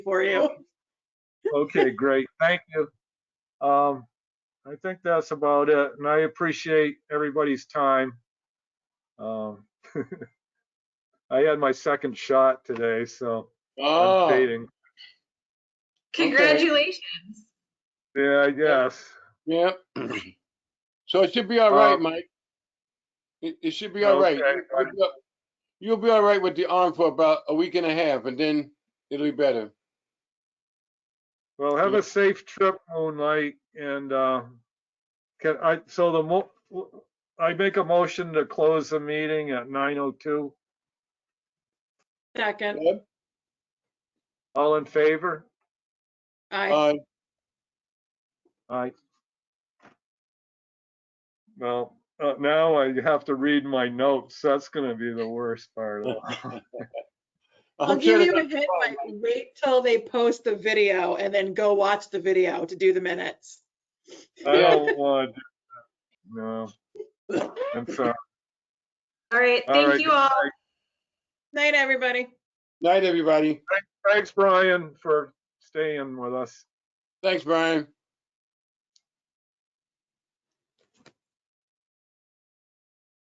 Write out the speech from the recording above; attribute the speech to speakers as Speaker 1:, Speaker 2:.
Speaker 1: for you.
Speaker 2: Okay, great. Thank you. Um, I think that's about it, and I appreciate everybody's time. Um, I had my second shot today, so I'm
Speaker 3: Oh,
Speaker 2: dating.
Speaker 4: Congratulations.
Speaker 2: Yeah, I guess.
Speaker 3: yeah. So it should be all right,
Speaker 2: Um,
Speaker 3: Mike. It, it should be all right.
Speaker 2: Okay,
Speaker 3: You'll be all- You'll be all right with the arm for about a week and a half and then it'll be better.
Speaker 2: Well, have
Speaker 3: Yeah.
Speaker 2: a safe trip, Moonlight, and, uh, can I, so the mo, I make a motion to close the meeting at nine oh two.
Speaker 1: Second,
Speaker 2: All in favor?
Speaker 1: I,
Speaker 3: Uh,
Speaker 2: Aye. Well, uh, now I have to read my notes. That's gonna be the worst part of it.
Speaker 1: I'll
Speaker 3: I'm sure
Speaker 1: give
Speaker 3: that-
Speaker 1: you a hint, like, wait till they post the video and then go watch the video to do the minutes.
Speaker 2: I
Speaker 3: Yeah.
Speaker 2: don't want to do that. No. I'm sorry.
Speaker 4: All right,
Speaker 2: All right,
Speaker 4: thank you
Speaker 2: good
Speaker 4: all.
Speaker 1: Night, everybody.
Speaker 3: Night, everybody.
Speaker 2: Thanks, Brian, for staying with us.
Speaker 3: Thanks, Brian.